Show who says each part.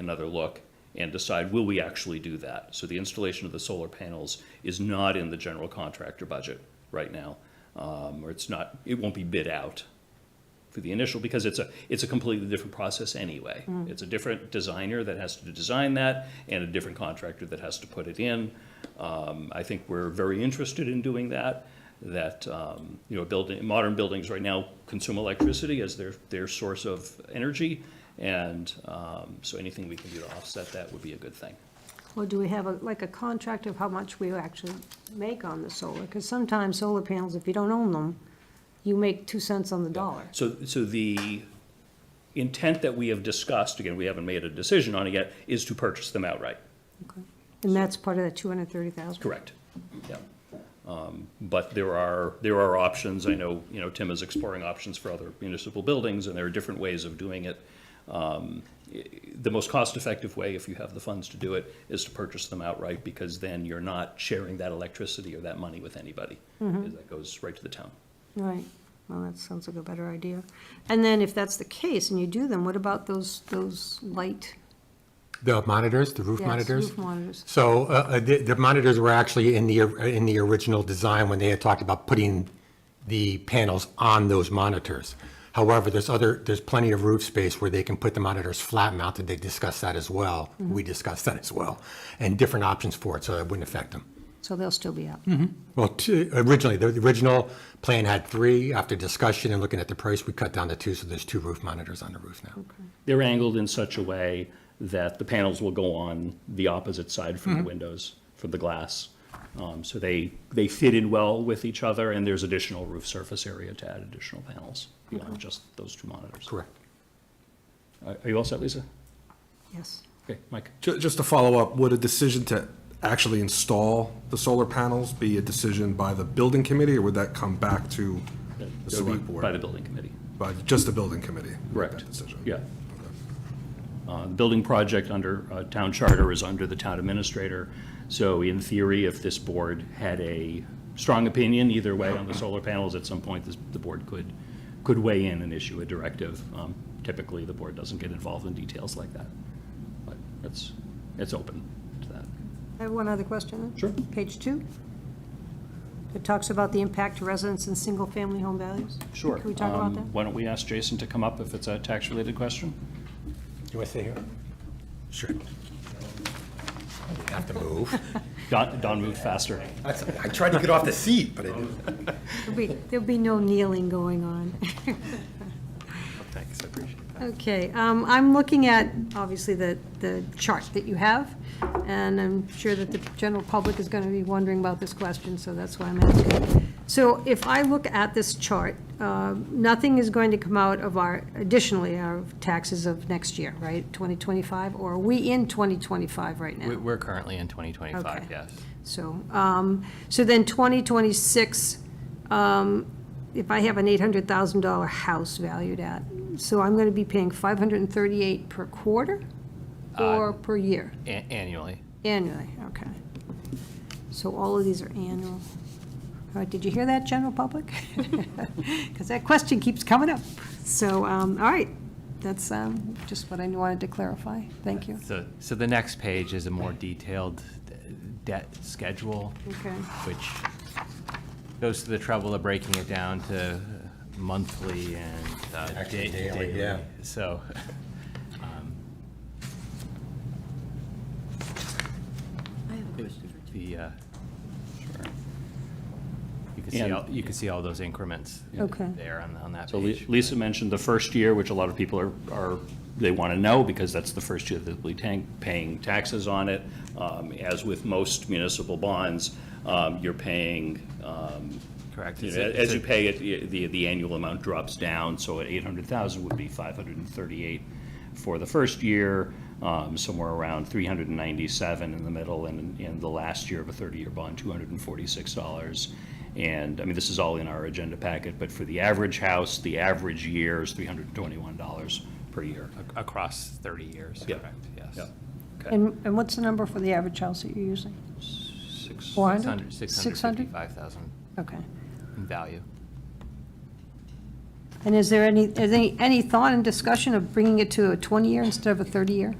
Speaker 1: another look and decide, will we actually do that? So the installation of the solar panels is not in the general contractor budget right now, um, or it's not, it won't be bid out for the initial, because it's a, it's a completely different process anyway. It's a different designer that has to design that, and a different contractor that has to put it in. Um, I think we're very interested in doing that, that, um, you know, building, modern buildings right now consume electricity as their, their source of energy, and um, so anything we can do to offset that would be a good thing.
Speaker 2: Or do we have a, like a contract of how much we actually make on the solar? Because sometimes solar panels, if you don't own them, you make two cents on the dollar.
Speaker 1: So, so the intent that we have discussed, again, we haven't made a decision on it yet, is to purchase them outright.
Speaker 2: Okay. And that's part of that two hundred and thirty thousand?
Speaker 1: Correct, yeah. Um, But there are, there are options, I know, you know, Tim is exploring options for other municipal buildings, and there are different ways of doing it. Um, i- The most cost-effective way, if you have the funds to do it, is to purchase them outright, because then you're not sharing that electricity or that money with anybody. That goes right to the town.
Speaker 2: Right, well, that sounds like a better idea. And then if that's the case and you do them, what about those, those light?
Speaker 3: The monitors, the roof
Speaker 2: yes,
Speaker 3: monitors?
Speaker 2: Roof monitors.
Speaker 3: So uh, uh, the the monitors were actually in the, in the original design when they had talked about putting the panels on those monitors. However, there's other, there's plenty of roof space where they can put the monitors flat mounted. They discussed that as well.
Speaker 2: Mm-hmm.
Speaker 3: We discussed that as well. And different options for it, so it wouldn't affect them.
Speaker 2: So they'll still be up.
Speaker 3: Well, two- originally, the the original plan had three. After discussion and looking at the price, we cut down to two, so there's two roof monitors on the roof now.
Speaker 1: They're angled in such a way that the panels will go on the opposite side from the windows, from the glass. Um, So they, they fit in well with each other, and there's additional roof surface area to add additional panels beyond just those two monitors.
Speaker 3: Correct.
Speaker 1: Are are you all set, Lisa?
Speaker 2: Yes,
Speaker 1: Okay, Mike?
Speaker 4: Ju- Just to follow up, would a decision to actually install the solar panels be a decision by the building committee, or would that come back to the
Speaker 1: It'll be
Speaker 4: select board?
Speaker 1: By the building committee.
Speaker 4: By just the building committee? would make
Speaker 1: Correct.
Speaker 4: that Decision?
Speaker 1: Yeah. Uh, The building project under uh, town charter is under the town administrator. So in theory, if this board had a strong opinion either way on the solar panels, at some point, this- the board could, could weigh in and issue a directive. Um, Typically, the board doesn't get involved in details like that. But it's, it's open to that.
Speaker 2: I have one other question then.
Speaker 1: Sure.
Speaker 2: Page two. It talks about the impact to residents and single-family home values.
Speaker 1: Sure.
Speaker 2: Can we talk about
Speaker 1: Um,
Speaker 2: that?
Speaker 1: Why don't we ask Jason to come up if it's a tax-related question?
Speaker 3: Do you want to stay here? Sure. Have to move.
Speaker 1: Don, Don moved faster.
Speaker 3: I tried to get off the seat, but I didn't.
Speaker 2: There'll be, there'll be no kneeling going on.
Speaker 3: Thanks, I appreciate it.
Speaker 2: Okay, um, I'm looking at, obviously, the, the chart that you have, and I'm sure that the general public is going to be wondering about this question, so that's why I'm asking. So if I look at this chart, uh, nothing is going to come out of our, additionally, our taxes of next year, right? 2025, or are we in 2025 right now?
Speaker 5: We- We're currently in 2025,
Speaker 2: Okay.
Speaker 5: yes.
Speaker 2: So, um, so then 2026, um, if I have an $800,000 house valued at, so I'm going to be paying 538 per quarter or per year?
Speaker 5: A- Annually.
Speaker 2: Annually, okay. So all of these are annual. All right, did you hear that, general public? Because that question keeps coming up. So, um, all right, that's um, just what I wanted to clarify. Thank you.
Speaker 5: So, so the next page is a more detailed uh, debt schedule,
Speaker 2: Okay,
Speaker 5: which goes to the trouble of breaking it down to uh, monthly and uh, da-
Speaker 3: Actually,
Speaker 5: daily.
Speaker 3: daily, yeah.
Speaker 5: So, um,
Speaker 6: I have a question for
Speaker 5: the, uh, you can see,
Speaker 1: And-
Speaker 5: all you can see all those increments
Speaker 2: Okay.
Speaker 5: there on on that
Speaker 1: So Li-
Speaker 5: page.
Speaker 1: Lisa mentioned the first year, which a lot of people are, are, they want to know because that's the first year that we tank, paying taxes on it. Um, As with most municipal bonds, um, you're paying, um,
Speaker 5: Correct.
Speaker 1: you
Speaker 5: It's
Speaker 1: know,
Speaker 5: a- it's
Speaker 1: as
Speaker 5: a-
Speaker 1: you pay it, y- the, the annual amount drops down. So at 800,000 would be 538 for the first year, um, somewhere around 397 in the middle, and in the last year of a 30-year bond, $246. And, I mean, this is all in our agenda packet, but for the average house, the average year is $321 per year.
Speaker 5: ac- Across 30 years,
Speaker 1: Yeah.
Speaker 5: correct, yes.
Speaker 1: Yeah. Okay.
Speaker 2: and, and what's the number for the average house that you're using?
Speaker 5: Six-
Speaker 2: 400?
Speaker 5: 600, 655,000
Speaker 2: Okay.
Speaker 5: in value.
Speaker 2: And is there any, is any, any thought and discussion of bringing it to a 20-year instead of a 30-year?